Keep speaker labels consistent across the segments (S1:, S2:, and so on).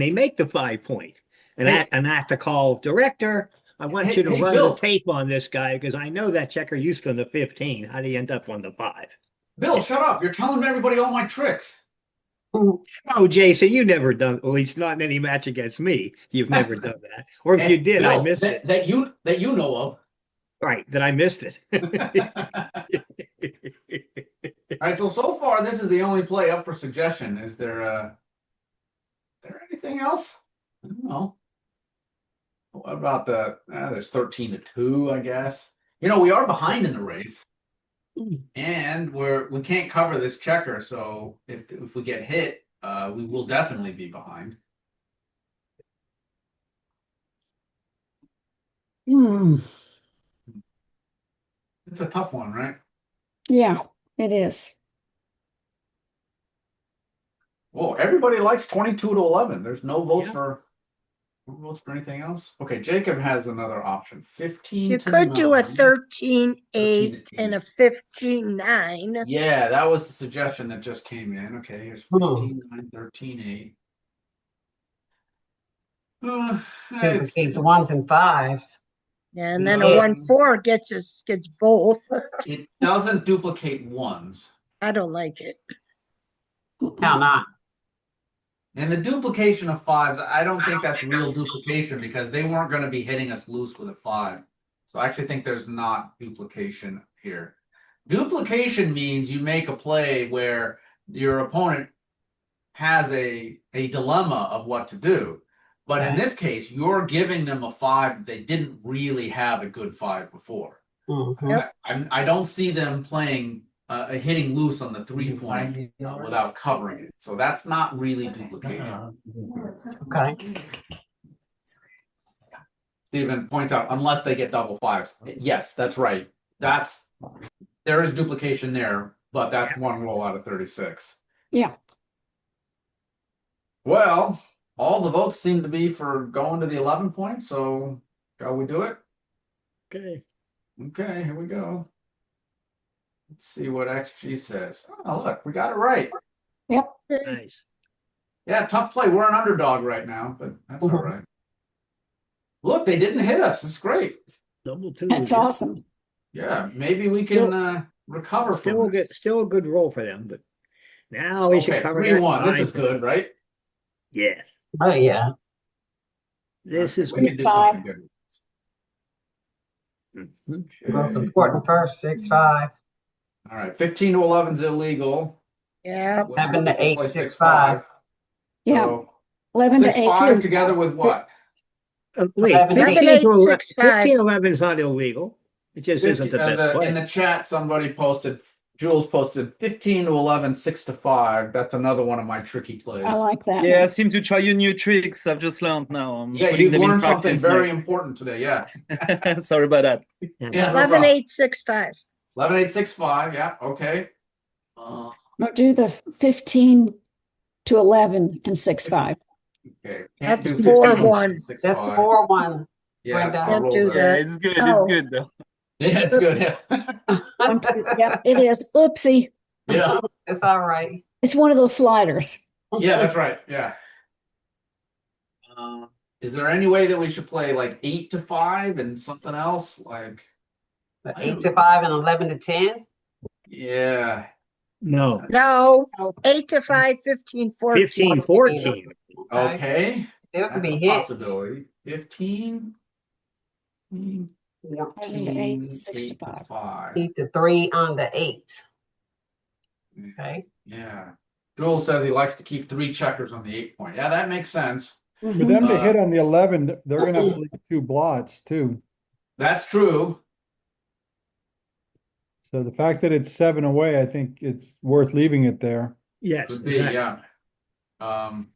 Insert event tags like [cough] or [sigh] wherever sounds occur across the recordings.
S1: they make the five point. And I, and I have to call director, I want you to
S2: Hey- hey,
S1: run the
S2: Bill.
S1: tape on this guy because I know that checker used from the fifteen. How do you end up on the five?
S2: Bill, shut up. You're telling everybody all my tricks.
S1: Oh, Jason, you never done, at least not in any match against me. You've
S2: [laughs]
S1: never done that. Or if you
S2: And
S1: did, I
S2: Bill,
S1: missed
S2: that-
S1: it.
S2: That you, that
S1: [laughs]
S2: you know
S1: Right, then I missed it. [laughs]
S2: of. All right, so so far, this is the only play up for suggestion. Is there uh there anything else? I don't know. What about the uh, there's 13 to 2, I guess. You know, we are behind in the race. And we're we can't cover this checker, so if if we get hit, uh we will definitely be behind.
S3: Hmm,
S2: It's a tough one, right?
S3: yeah, it is.
S2: Whoa, everybody likes 22 to 11. There's no votes
S1: Yeah.
S2: for no votes for anything else. Okay, Jacob has another option. 15
S4: You
S2: to
S4: could do a
S2: 9.
S4: thirteen eight and a
S2: eight.
S4: fifteen nine.
S2: Yeah, that was the suggestion that just came in. Okay, here's 15, 9, 13, 8. Uh, eh,
S5: It takes ones and fives.
S4: And then a
S2: Yeah.
S4: one four gets us, gets both.
S2: it doesn't duplicate ones.
S4: I don't like it.
S5: How
S2: Mm-hmm.
S5: not?
S2: And the duplication of fives, I don't think that's real duplication because they weren't going to be hitting us loose with a five. So I actually think there's not duplication here. Duplication means you make a play where your opponent has a a dilemma of what to do. But in
S5: Right.
S2: this case, you're giving them a five that they didn't really have a good five before.
S5: Mhm.
S4: Yep.
S2: I, I'm- I don't see them playing uh, uh, hitting loose on the three point uh, without covering it. So that's not really duplication.
S5: Okay.
S2: Stephen points out, unless they get double fives. Yes, that's right. That's, there is duplication there, but that's one roll out of thirty-six.
S3: Yeah.
S2: Well, all the votes seem to be for going to the eleven point, so shall we do it?
S1: Okay,
S2: Okay, here we go. Let's see what XG says. Oh, look, we got it right.
S1: nice.
S2: Yeah, tough play. We're an underdog right now, but that's all
S5: Mhm.
S2: right. Look, they didn't hit us. It's great.
S1: Double two.
S3: That's awesome.
S2: Yeah, maybe we
S1: Still-
S2: can uh, recover
S1: Still a
S2: from
S1: good,
S2: this.
S1: still a good roll for them, but now we should
S2: Okay,
S1: cover
S2: three
S1: that
S2: one. This
S1: five.
S2: is good, right?
S1: Yes,
S5: Oh, yeah.
S1: this
S2: Okay,
S1: is
S2: we can
S1: good.
S2: do something good.
S1: Mhm.
S5: Most
S2: Okay.
S5: important first, six,
S2: Mm-hmm.
S5: five.
S2: All right, fifteen to eleven is illegal.
S4: Yeah,
S2: We'll
S5: Seven to
S2: have
S5: eight,
S2: play
S5: six, five.
S3: Yeah,
S2: So
S3: eleven to
S2: six five
S3: eight.
S2: together with what?
S1: Uh, Wait,
S5: Eleven, eight.
S1: fifteen to eleven,
S4: Six, five.
S1: fifteen to eleven is not illegal. It just isn't the
S2: 15 uh,
S1: best
S2: the- In
S1: play.
S2: the chat, somebody posted, Jules posted fifteen to 11, 6 to five. That's another one of my tricky plays.
S3: I like that.
S6: Yeah, I
S3: one.
S6: seem to try you new tricks. I've just learned now. I'm
S2: Yeah,
S6: Um, putting
S2: you've
S6: them in
S2: learned something
S6: practice
S2: very important today, yeah.
S6: now. [laughs] Sorry about that.
S2: Yeah, no
S4: eleven
S2: problem.
S4: eight six five.
S2: Eleven, eight, six, five, yeah, okay. Uh,
S3: No, do the fifteen to eleven and six, five.
S2: Okay. can't
S4: That's
S2: do
S4: four
S2: 15,
S4: one.
S2: six,
S5: That's
S2: five.
S5: four, one.
S2: Yeah,
S5: Brenda.
S2: our
S4: Can't
S2: rules
S4: do
S2: are-
S4: that.
S6: Yeah, it's good. It's
S3: Oh.
S6: good though.
S2: [laughs] Yeah, it's good, yeah.
S4: [laughs]
S3: One, two- Yep, it is. Oopsie.
S2: Yeah,
S5: It's all right.
S3: It's one of those sliders.
S2: yeah, that's right, yeah.
S5: Um,
S2: Uh, Is there any way that we should play like eight to five and something else, like,
S5: The Eight to five and eleven to ten.
S2: yeah.
S1: No,
S4: No, eight to five, fifteen, fourteen.
S1: fifteen, fourteen.
S2: Okay.
S5: Still could
S2: That's
S5: be
S2: a
S5: hit.
S2: possibility. Fifteen. mm,
S3: Seven to eight,
S2: 14,
S3: six
S2: Mm,
S3: to
S2: eight to
S3: five.
S2: five.
S5: Eight to three on the eight.
S2: Mm.
S5: Okay.
S2: Yeah. Jewel says he likes to keep three checkers on the eight point. Yeah, that makes sense.
S7: For
S3: Mhm.
S7: them to hit
S2: Uh,
S7: on the eleven, th- they're gonna have to leave two blots too.
S2: That's true.
S7: So the fact that it's seven away, I think it's worth leaving it there.
S1: Yes,
S2: Could be,
S1: exactly.
S2: yeah. Um,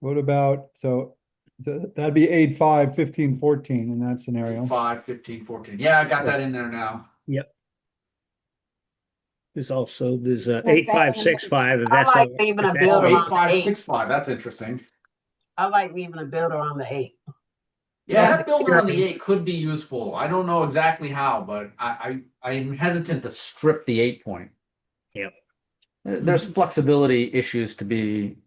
S7: What about, so th- that'd be eight, five, fifteen, fourteen in that scenario.
S2: five, fifteen, fourteen. Yeah, I got that in there now.
S1: There's also, there's a
S3: That's
S1: eight, five, six, five, and
S5: I
S1: that's.
S5: like
S1: all-
S5: leaving a
S1: that's
S5: bill
S2: Oh,
S1: all-
S5: around
S2: eight, five,
S5: eight.
S2: six, five. That's interesting.
S5: I like leaving a builder on the eight.
S2: Yeah,
S5: That's
S2: that builder on the
S5: security.
S2: eight could be useful. I don't know exactly how, but I, I, I'm hesitant to strip the eight point. There- There's flexibility issues to be